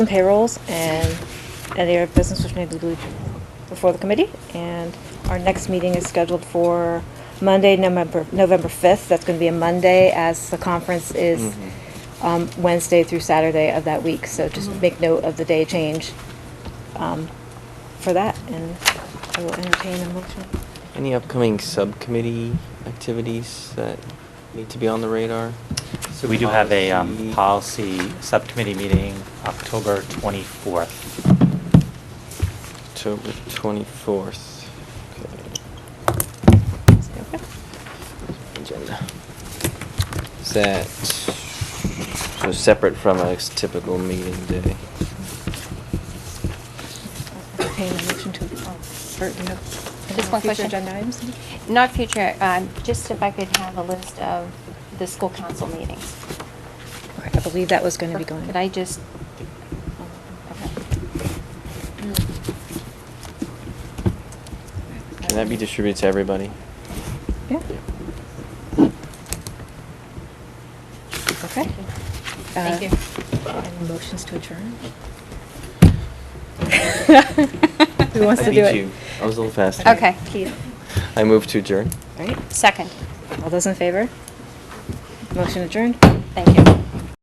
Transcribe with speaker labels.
Speaker 1: some payrolls and any other business which may be due before the committee. And our next meeting is scheduled for Monday, November, November 5th. That's going to be a Monday as the conference is
Speaker 2: Mm-hmm.
Speaker 1: um, Wednesday through Saturday of that week. So just make note of the day change um, for that and I will entertain a motion.
Speaker 2: Any upcoming subcommittee activities that need to be on the radar?
Speaker 3: So we do have a um,
Speaker 2: Policy.
Speaker 3: policy subcommittee meeting October 24th.
Speaker 2: October 24th. Okay.
Speaker 1: Is that okay?
Speaker 2: Agenda. Is that, so separate from a typical meeting day?
Speaker 1: Entertain a motion to, oh, Bert, do you have? any
Speaker 4: Just
Speaker 1: future
Speaker 4: one question.
Speaker 1: Agenda items?
Speaker 4: Not future, um, just if I could have a list of the school council meetings.
Speaker 1: Okay, I believe that was going to be going. Um,
Speaker 4: Could I just?
Speaker 2: Can that be distributed to everybody?
Speaker 1: Yeah, okay.
Speaker 4: Thank
Speaker 1: Uh,
Speaker 4: you.
Speaker 1: And motions to adjourn? Who
Speaker 4: Who
Speaker 1: wants
Speaker 2: I
Speaker 1: to
Speaker 2: beat
Speaker 1: do it?
Speaker 2: you. I was a little faster.
Speaker 4: Okay.
Speaker 1: Keith.
Speaker 2: I move to adjourn.
Speaker 1: All right,
Speaker 4: Second,
Speaker 1: all those in favor? Motion adjourned.
Speaker 4: thank you.